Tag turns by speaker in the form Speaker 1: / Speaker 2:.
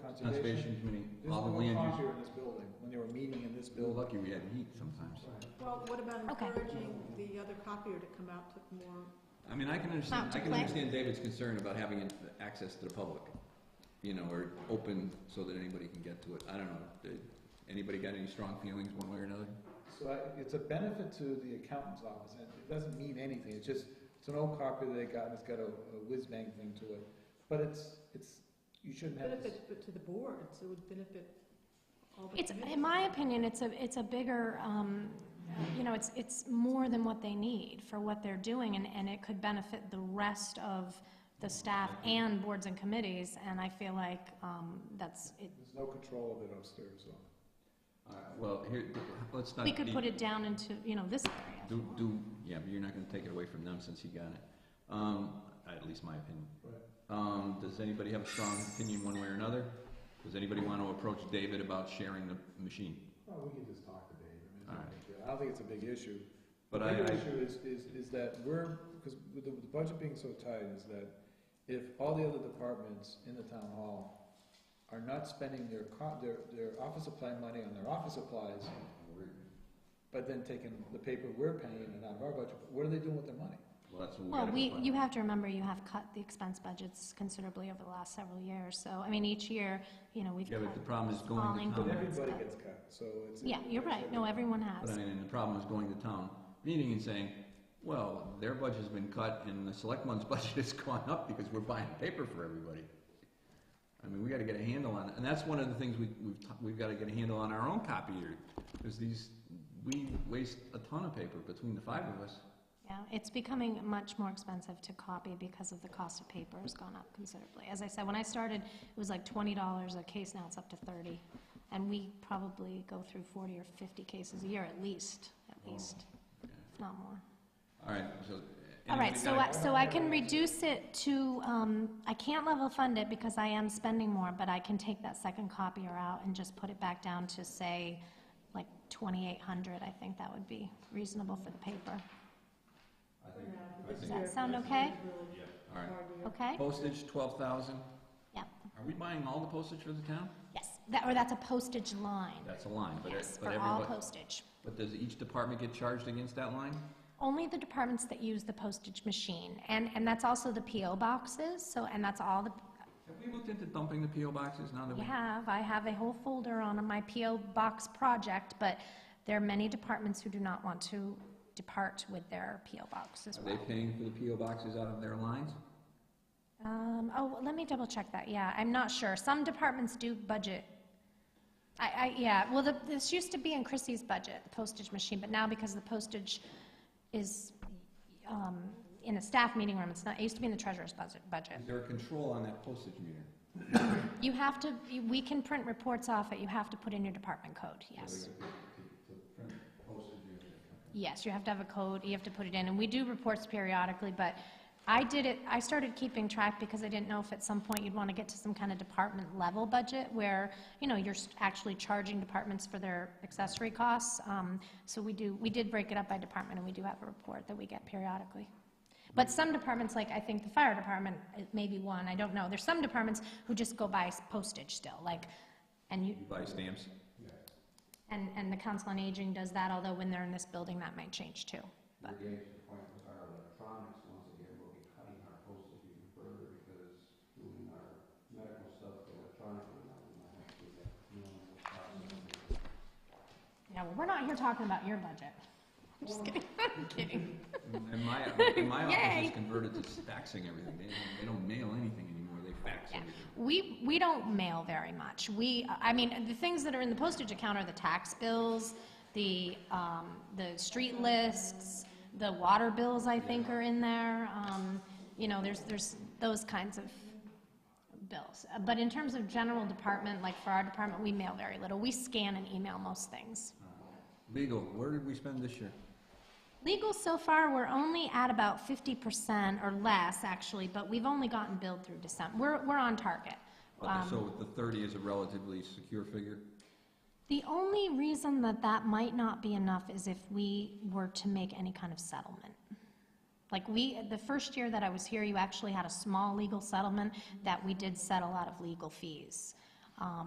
Speaker 1: Conservation
Speaker 2: conservation.
Speaker 1: Committee,
Speaker 2: There's
Speaker 1: all
Speaker 2: no
Speaker 1: the
Speaker 2: one
Speaker 1: land
Speaker 2: copier
Speaker 1: use.
Speaker 2: in this building, when they were meeting in this
Speaker 1: We're
Speaker 2: building.
Speaker 1: lucky we had heat sometimes.
Speaker 3: Well, what about
Speaker 4: Okay.
Speaker 3: encouraging the other copier to come out to more,
Speaker 1: I mean, I can understand,
Speaker 4: Not to
Speaker 1: I can
Speaker 4: play.
Speaker 1: understand David's concern about having it- access to the public, you know, or open so that anybody can get to it. I don't know, Did anybody got any strong feelings one way or another?
Speaker 2: So I- it's a benefit to the accountant's office, and it doesn't mean anything, it's just, it's an old copy that they got, and it's got a a whiz-bang thing to it. But it's, it's, you shouldn't have this.
Speaker 3: benefit to the board, so it would benefit all the
Speaker 4: It's,
Speaker 3: committees?
Speaker 4: in my opinion, it's a, it's a bigger, um, you know, it's, it's more than what they need for what they're doing, and, and it could benefit the rest of the staff and boards and committees, and I feel like, um, that's, it,
Speaker 2: There's no control of it upstairs, so.
Speaker 1: Uh, Well, here, let's not.
Speaker 4: we could
Speaker 1: be-
Speaker 4: put it down into, you know, this area.
Speaker 1: Do, do, yeah, but you're not gonna take it away from them since he got it. Um, at least my opinion.
Speaker 2: Right.
Speaker 1: Um, does anybody have a strong opinion one way or another? Does anybody wanna approach David about sharing the machine?
Speaker 2: Well, we can just talk to Dave. I mean, it's
Speaker 1: All
Speaker 2: not a
Speaker 1: right.
Speaker 2: big deal. I don't think it's a big issue.
Speaker 1: But
Speaker 2: The
Speaker 1: I,
Speaker 2: bigger
Speaker 1: I,
Speaker 2: issue is, is, is that we're, because with the with the budget being so tight, is that if all the other departments in the town hall are not spending their co- their, their office supply money on their office supplies, but then taking the paper we're paying and out of our budget, what are they doing with their money?
Speaker 1: well, that's what we
Speaker 4: Well,
Speaker 1: gotta
Speaker 4: we,
Speaker 1: find
Speaker 4: you
Speaker 1: out.
Speaker 4: have to remember, you have cut the expense budgets considerably over the last several years, so, I mean, each year, you know, we've
Speaker 1: Yeah,
Speaker 4: cut.
Speaker 1: but the problem is going to
Speaker 4: all
Speaker 1: town.
Speaker 2: But
Speaker 4: increments,
Speaker 2: everybody
Speaker 4: but-
Speaker 2: gets cut, so it's.
Speaker 4: Yeah, you're right, no, everyone
Speaker 1: But I
Speaker 4: has,
Speaker 1: mean, and the problem is going to town meeting and saying, well, their budget's been cut and the selectmen's budget has gone up because we're buying paper for everybody. I mean, we gotta get a handle on it, and that's one of the things we, we've, ta- we've gotta get a handle on our own copier, because these, we waste a ton of paper between the five of us.
Speaker 4: yeah, it's becoming much more expensive to copy because of the cost of paper has gone up considerably. As I said, when I started, it was like twenty dollars a case, now it's up to thirty, and we probably go through forty or fifty cases a year at least, at
Speaker 1: Oh.
Speaker 4: least,
Speaker 1: Yeah.
Speaker 4: if not more.
Speaker 1: All right, so.
Speaker 4: All right,
Speaker 1: anybody
Speaker 4: so
Speaker 1: got
Speaker 4: I, so I can reduce it to, um, I can't level fund it because I am spending more, but I can take that second copier out and just put it back down to, say, like twenty-eight hundred, I think that would be reasonable for the paper. Does that sound okay?
Speaker 1: All right,
Speaker 4: Okay?
Speaker 1: postage, twelve thousand,
Speaker 4: Yeah,
Speaker 1: are we buying all the postage for the town?
Speaker 4: yes, that, or that's a postage line.
Speaker 1: That's a line, but,
Speaker 4: Yes,
Speaker 1: it-
Speaker 4: for
Speaker 1: but
Speaker 4: all
Speaker 1: everybody,
Speaker 4: postage.
Speaker 1: but does each department get charged against that line?
Speaker 4: Only the departments that use the postage machine, and, and that's also the PO boxes, so, and that's all the,
Speaker 1: Have we looked into dumping the PO boxes now that
Speaker 4: We
Speaker 1: we?
Speaker 4: have, I have a whole folder on my PO Box project, but there are many departments who do not want to depart with their PO Box as
Speaker 1: Are
Speaker 4: well.
Speaker 1: they paying for the PO boxes out of their lines?
Speaker 4: Um, oh, let me double check that, yeah, I'm not sure, some departments do budget. I, I, yeah, well, the- this used to be in Chrissy's budget, the postage machine, but now because the postage is, um, in a staff meeting room, it's not, it used to be in the treasurer's budget, budget.
Speaker 1: Is there a control on that postage meter?
Speaker 4: You have to, you- we can print reports off it, you have to put in your department code, yes. Yes, you have to have a code, you have to put it in, and we do reports periodically, but I did it, I started keeping track because I didn't know if at some point you'd want to get to some kind of department level budget where, you know, you're s- actually charging departments for their accessory costs. Um, So we do, we did break it up by department, and we do have a report that we get periodically. But some departments, like I think the fire department, it may be one, I don't know, there's some departments who just go by postage still, like, and you,
Speaker 1: You buy stamps?
Speaker 4: and, and the Council on Aging does that, although when they're in this building, that might change too. But- Yeah, well, we're not here talking about your budget. I'm just kidding, I'm kidding.
Speaker 1: And my, and my office
Speaker 4: Yay.
Speaker 1: is converted to faxing everything. They don't, they don't mail anything anymore, they fax
Speaker 4: Yeah.
Speaker 1: everything.
Speaker 4: We, we don't mail very much. We, I mean, the things that are in the postage account are the tax bills, the, um, the street lists, the water bills, I think, are in there. Um, you know, there's, there's those kinds of bills. Uh, But in terms of general department, like for our department, we mail very little. We scan and email most things.
Speaker 1: Legal, where did we spend this year?
Speaker 4: Legal so far, we're only at about fifty percent or less, actually, but we've only gotten billed through December. We're, we're on target.
Speaker 1: Okay,
Speaker 4: Um,
Speaker 1: so the thirty is a relatively secure figure?
Speaker 4: The only reason that that might not be enough is if we were to make any kind of settlement. Like we, the first year that I was here, you actually had a small legal settlement that we did settle out of legal fees. um,